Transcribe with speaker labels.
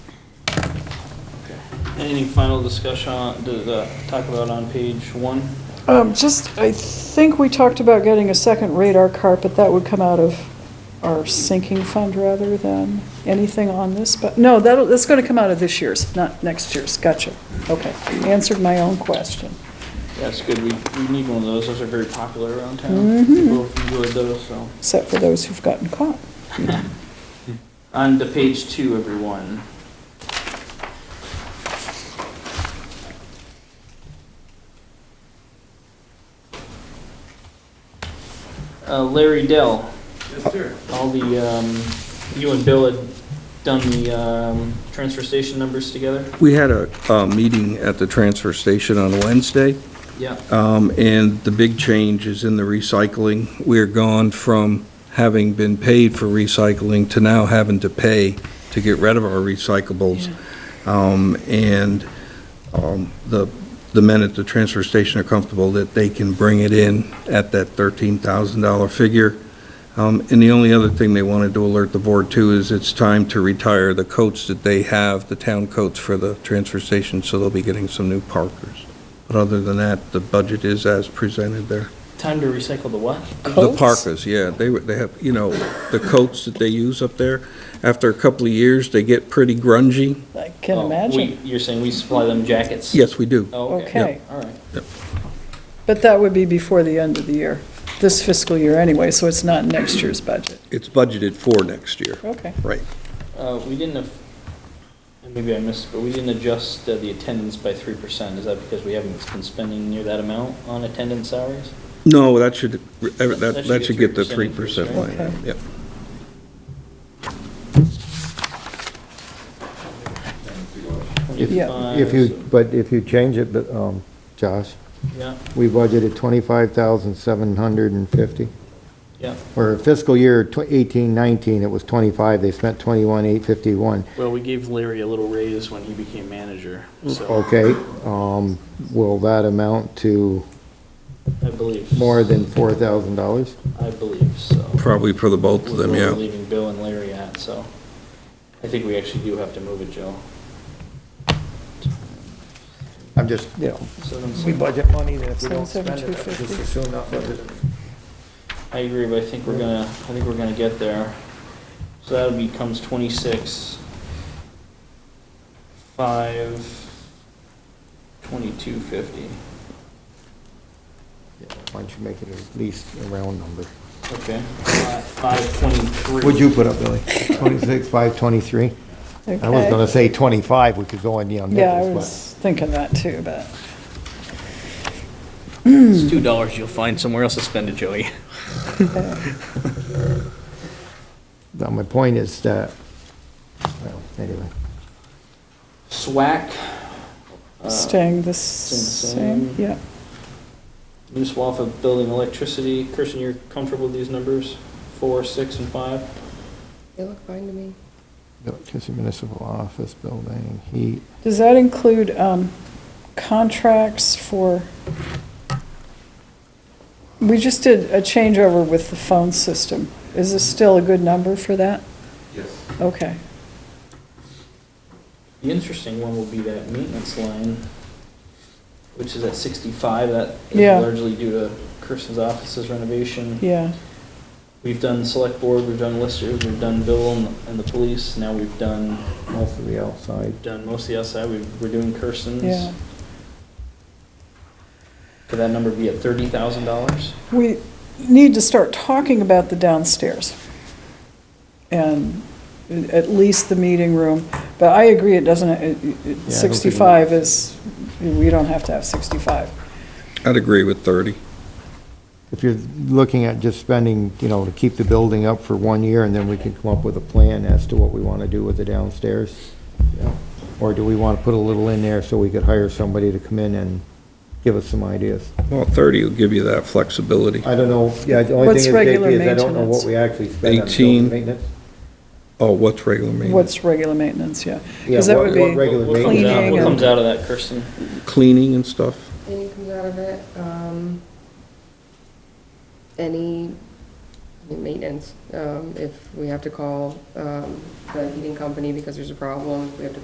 Speaker 1: Any final discussion, on- to the- talk about on page one?
Speaker 2: Um, just, I think we talked about getting a second radar cart, but that would come out of our sinking fund rather than anything on this, but, no, that'll, that's gonna come out of this year's, not next year's, gotcha. Okay, answered my own question.
Speaker 1: That's good, we, we need one of those, those are very popular around town.
Speaker 2: Mhm.
Speaker 1: People enjoy those, so.
Speaker 2: Except for those who've gotten caught.
Speaker 1: On to page two, everyone. Uh, Larry Dell,
Speaker 3: Yes, sir.
Speaker 1: all the, um, you and Bill had done the, um, transfer station numbers together?
Speaker 4: We had a, uh meeting at the transfer station on Wednesday,
Speaker 1: Yeah.
Speaker 4: um, and the big change is in the recycling. We're gone from having been paid for recycling to now having to pay to get rid of our recyclables. Um, and, um, the, the men at the transfer station are comfortable that they can bring it in at that thirteen thousand dollar figure. Um, and the only other thing they wanted to alert the board to is it's time to retire the coats that they have, the town coats for the transfer station, so they'll be getting some new Parkers. But other than that, the budget is as presented there.
Speaker 1: Time to recycle the what?
Speaker 4: The parkas, yeah, they, were- they have, you know, the coats that they use up there, after a couple of years, they get pretty grungy.
Speaker 2: I can
Speaker 1: Oh,
Speaker 2: imagine.
Speaker 1: we- You're saying we supply them jackets?
Speaker 4: Yes, we do.
Speaker 1: Oh,
Speaker 2: Okay.
Speaker 1: okay, all right.
Speaker 2: But that would be before the end of the year, this fiscal year anyway, so it's not next year's budget.
Speaker 4: It's budgeted for next year,
Speaker 2: Okay.
Speaker 4: right.
Speaker 1: Uh, we didn't, af- and maybe I missed, but we didn't adjust uh, the attendance by three percent. Is that because we haven't been spending near that amount on attendance salaries?
Speaker 4: No, that should, that,
Speaker 1: should
Speaker 4: that
Speaker 1: get
Speaker 4: should get the
Speaker 1: 3%
Speaker 4: three
Speaker 1: increase,
Speaker 4: percent
Speaker 2: right?
Speaker 4: line, item, yep.
Speaker 2: Yeah.
Speaker 1: Twenty-five,
Speaker 5: If you, but if you change it, but, um, Josh,
Speaker 1: Yeah,
Speaker 5: we budgeted twenty-five thousand seven hundred and fifty.
Speaker 1: yeah.
Speaker 5: Or fiscal year tw- eighteen nineteen, it was twenty-five, they spent twenty-one eight fifty-one.
Speaker 1: Well, we gave Larry a little raise when he became manager,
Speaker 5: Mm.
Speaker 1: so
Speaker 5: Okay, um, will that amount to
Speaker 1: I believe.
Speaker 5: more than four thousand dollars?
Speaker 1: I believe so.
Speaker 4: Probably for the both of
Speaker 1: With
Speaker 4: them,
Speaker 1: where we're
Speaker 4: yeah.
Speaker 1: Leaving Bill and Larry at, so I think we actually do have to move it, Joe.
Speaker 5: I'm just, you know,
Speaker 1: Seven,
Speaker 5: we
Speaker 1: seven.
Speaker 5: budget money, then if we don't spend
Speaker 2: Seven, seven,
Speaker 5: it, I would just
Speaker 2: 250.
Speaker 5: assume not budget it.
Speaker 1: I agree, but I think we're gonna, I think we're gonna get there. So that becomes twenty-six, five, twenty-two fifty.
Speaker 5: Yeah, Why don't you make it at least a round number?
Speaker 1: Okay, five twenty-three.
Speaker 5: What'd you put up, Billy? Twenty-six, five twenty-three? I was gonna say twenty-five, we could go on the on
Speaker 2: Yeah, I
Speaker 5: nickels, but.
Speaker 2: was thinking that too, but.
Speaker 6: It's two dollars you'll find somewhere else to spend it, Joey.
Speaker 5: Now, my point is that, well, anyway,
Speaker 1: SWAC. uh,
Speaker 2: Staying the
Speaker 1: same.
Speaker 2: same, yeah.
Speaker 1: New swath of building electricity. Kirsten, you're comfortable with these numbers? Four, six, and five?
Speaker 7: They look fine to me.
Speaker 5: electricity municipal office building, heat,
Speaker 2: Does that include um, contracts for, we just did a changeover with the phone system. Is this still a good number for that?
Speaker 3: Yes.
Speaker 2: Okay.
Speaker 1: The interesting one will be that maintenance line, which is at sixty-five, that is
Speaker 2: Yeah.
Speaker 1: largely due to Kirsten's office's renovation.
Speaker 2: Yeah,
Speaker 1: We've done select board, we've done listers, we've done Bill and, and the police, now we've done,
Speaker 5: most of the outside.
Speaker 1: done mostly outside, we, we're doing Kirsten's.
Speaker 2: yeah.
Speaker 1: Could that number be at thirty thousand dollars?
Speaker 2: We need to start talking about the downstairs and at least the meeting room. But I agree, it doesn't, it- it- 65 is, we don't have to have 65.
Speaker 4: I'd agree with thirty.
Speaker 5: If you're looking at just spending, you know, to keep the building up for one year, and then we can come up with a plan as to what we want to do with the downstairs. you know? Or do we want to put a little in there so we could hire somebody to come in and give us some ideas?
Speaker 4: Well, thirty will give you that flexibility.
Speaker 5: I don't know, yeah, the only
Speaker 2: What's
Speaker 5: thing is,
Speaker 2: regular
Speaker 5: JP, is I don't know
Speaker 2: maintenance?
Speaker 5: what we actually spend on building
Speaker 4: 18.
Speaker 5: maintenance.
Speaker 4: Oh, what's regular maintenance?
Speaker 2: What's regular maintenance, yeah.
Speaker 5: Yeah,
Speaker 2: 'Cause that
Speaker 5: what-
Speaker 2: would
Speaker 5: what
Speaker 2: be
Speaker 5: regular
Speaker 1: What comes
Speaker 5: maintenance.
Speaker 1: out-
Speaker 2: cleaning
Speaker 1: What
Speaker 2: and-
Speaker 1: comes out of that, Kirsten?
Speaker 4: Cleaning and stuff?
Speaker 7: Any comes out of it, um, any maintenance, um, if we have to call, um, the heating company because there's a problem, if we have to